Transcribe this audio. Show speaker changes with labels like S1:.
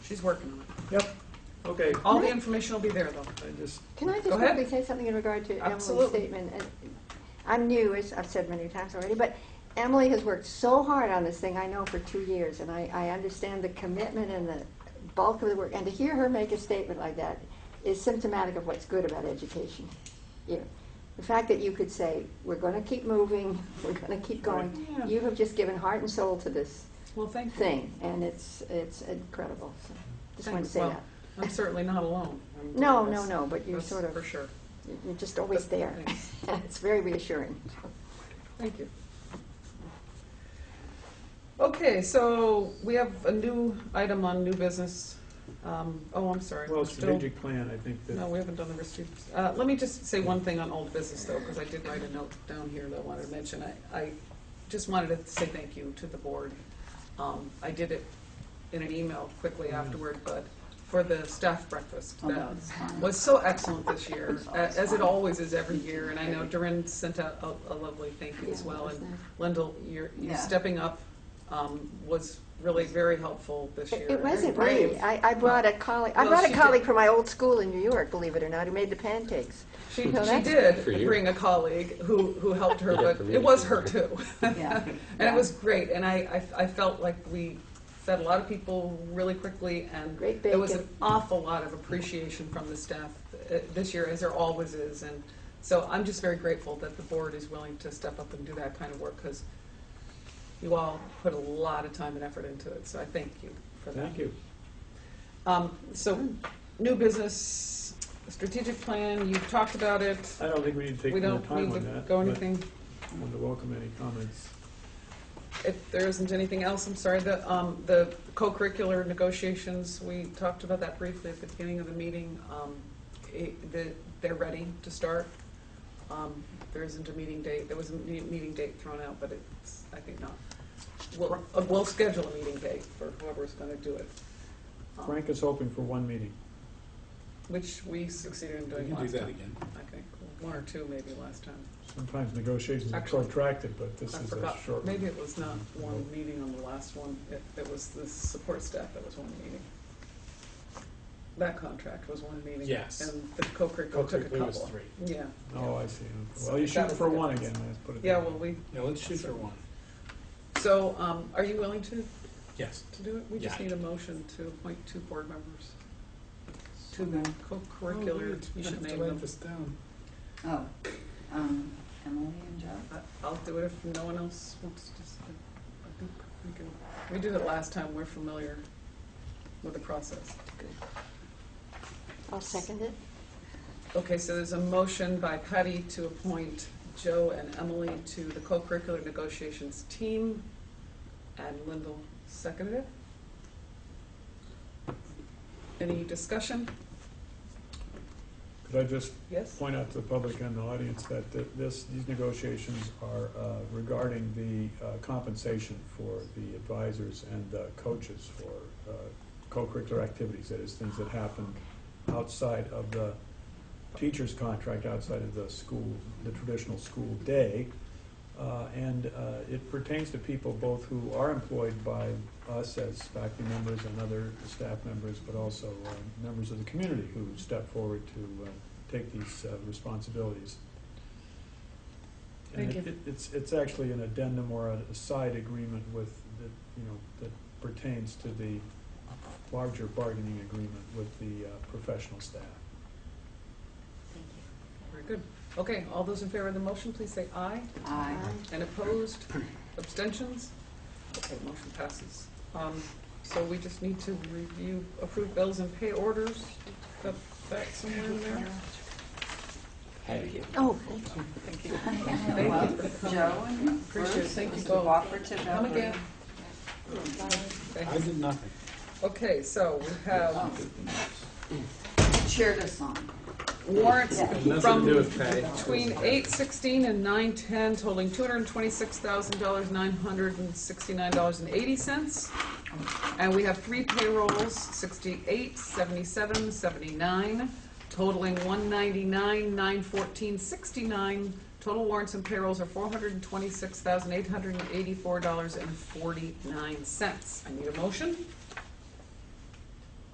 S1: She's working on it.
S2: Yep, okay.
S1: All the
S3: Right.
S1: information will be there, though.
S2: I just,
S3: Can I
S1: Go
S3: just
S1: ahead.
S3: quickly say something in regard to Emily's
S1: Absolutely.
S3: statement? And I'm new, as I've said many times already, but Emily has worked so hard on this thing, I know, for two years, and I, I understand the commitment and the bulk of the work, and to hear her make a statement like that is symptomatic of what's good about education. Yeah. The fact that you could say, we're gonna keep moving, we're gonna keep going,
S1: Right. Yeah.
S3: you have just given heart and soul to this
S1: Well, thank you.
S3: thing, and it's, it's incredible, so, just wanted to
S1: Thanks.
S3: say
S1: Well,
S3: that.
S1: I'm certainly not alone. I'm-
S3: No, no,
S1: that's-
S3: no, but you're
S1: that's
S3: sort of.
S1: For sure.
S3: You're just always there.
S1: Thanks.
S3: It's very reassuring.
S1: Thank you. Okay, so we have a new item on new business. Um, Oh, I'm sorry.
S2: well,
S1: we're still-
S2: strategic plan, I think
S1: No,
S2: that,
S1: we haven't done the risk. treat- uh, Let me just say one thing on old business, though, because I did write a note down here that I wanted to mention. I, I just wanted to say thank you to the board. Um, I did it in an email quickly
S3: Mm.
S1: afterward, but for the staff breakfast.
S4: Oh, that
S1: that
S4: was fun.
S1: was so excellent this year,
S4: It's
S1: a-
S4: always
S1: as it
S4: fun.
S1: always is every year. And I know Doreen sent a, a a lovely thank you as
S3: Yeah,
S1: well.
S3: that was
S1: And
S3: nice.
S1: Lyndall, your, you
S4: Yeah.
S1: stepping up um, was really very helpful this year.
S3: It wasn't
S1: Very
S3: me.
S1: brave.
S3: I, I brought a colleague, I
S1: Well,
S3: brought
S1: she
S3: a
S1: did-
S3: colleague from my old school in New York, believe it or not, who made the pancakes.
S1: She,
S3: No,
S1: she
S3: that's-
S1: did
S5: For you.
S1: bring a colleague who, who helped her,
S5: Yeah,
S1: but
S5: for me.
S1: it was her too.
S4: Yeah.
S1: And it was great, and I, I, I felt like we fed a lot of people really quickly, and
S3: Great
S1: there was an
S3: bacon.
S1: awful lot of appreciation from the staff uh, this year, as there always is, and so I'm just very grateful that the board is willing to step up and do that kind of work, because you all put a lot of time and effort into it, so I thank you for that.
S2: thank you.
S1: Um, so, new business, strategic plan, you've talked about it.
S2: I don't think we need to
S1: We
S2: take more
S1: don't
S2: time
S1: need to
S2: on that.
S1: go
S2: but
S1: anything,
S2: I want to welcome any comments.
S1: if there isn't anything else, I'm sorry, the, um, the co-curricular negotiations, we talked about that briefly at the beginning of the meeting. Um, it, the, they're ready to start. Um, there isn't a meeting date, there was a me- meeting date thrown out, but it's, I think not. We'll, uh, we'll schedule a meeting date for whoever's gonna do it. um,
S2: Frank is hoping for one meeting.
S1: Which we succeeded in
S6: We
S1: doing
S6: can do
S1: last
S6: that
S1: time,
S6: again.
S1: I think, one or two maybe last time.
S2: Sometimes negotiations are
S1: Actually,
S2: protracted, but this
S1: I
S2: is a
S1: forgot,
S2: short
S1: maybe
S2: one.
S1: it was not one meeting on the last one, it, it was the support staff that was one meeting. That contract was one meeting.
S6: Yes.
S1: And the co-curricular took a
S6: Co-curricular
S1: couple.
S6: was three.
S1: Yeah.
S2: Oh, I see. Well,
S1: So
S2: you
S1: that
S2: shoot
S1: was
S2: for
S1: the
S2: one again,
S1: difference.
S2: let's put it.
S1: Yeah,
S2: that
S1: well,
S2: way.
S1: we,
S6: Yeah, let's shoot for one.
S1: so, um, are you willing to,
S6: Yes.
S1: to do it? We just
S6: Yeah.
S1: need a motion to appoint two board members to
S4: So
S1: the
S4: moved.
S1: co-curricular, Oh, you should name them.
S6: down.
S4: Oh, um, Emily and Joe?
S1: I- I'll do it if no one else wants to. s- I think we can, we did it last time, we're familiar with the process.
S3: I'll second it.
S1: Okay, so there's a motion by Patty to appoint Joe and Emily to the co-curricular negotiations team, and Lyndall seconded it. Any discussion?
S2: Could I just
S1: Yes?
S2: point out to the public and the audience that th- this, these negotiations are uh, regarding the uh, compensation for the advisors and the coaches for uh, co-curricular activities, that is, things that happen outside of the teacher's contract, outside of the school, the traditional school day. Uh, And uh, it pertains to people both who are employed by us as faculty members and other staff members, but also uh, members of the community who step forward to uh, take these uh, responsibilities. And
S1: Thank
S2: it-
S1: you.
S2: it- It's, it's actually an addendum or a side agreement with, the you know, that pertains to the larger bargaining agreement with the uh, professional staff.
S1: Very good. Okay, all those in favor of the motion, please say aye.
S4: Aye.
S1: And opposed? Abstentions? Okay, motion passes. Um, So we just need to review, approve bills and pay orders. Got that somewhere in there?
S3: Oh,
S1: Thank
S3: thank you.
S1: you.
S4: Emily, well, Joe and
S1: Appreciate it.
S4: Bruce,
S1: Thank you
S4: it was a
S1: both.
S4: cooperative
S1: Come
S4: effort.
S1: again.
S6: I
S1: Thanks.
S6: did nothing.
S1: Okay, so we have
S4: Cheered us on.
S1: warrants
S6: Nothing
S1: from
S6: to do with Patty.
S1: between eight sixteen and nine ten totaling two hundred and twenty-six thousand dollars, nine hundred and sixty-nine dollars and eighty cents. And we have three payrolls, sixty-eight, seventy-seven, seventy-nine, totaling one ninety-nine, nine fourteen, sixty-nine. Total warrants and payrolls are four hundred and twenty-six thousand, eight hundred and eighty-four dollars and forty-nine cents. I need a motion?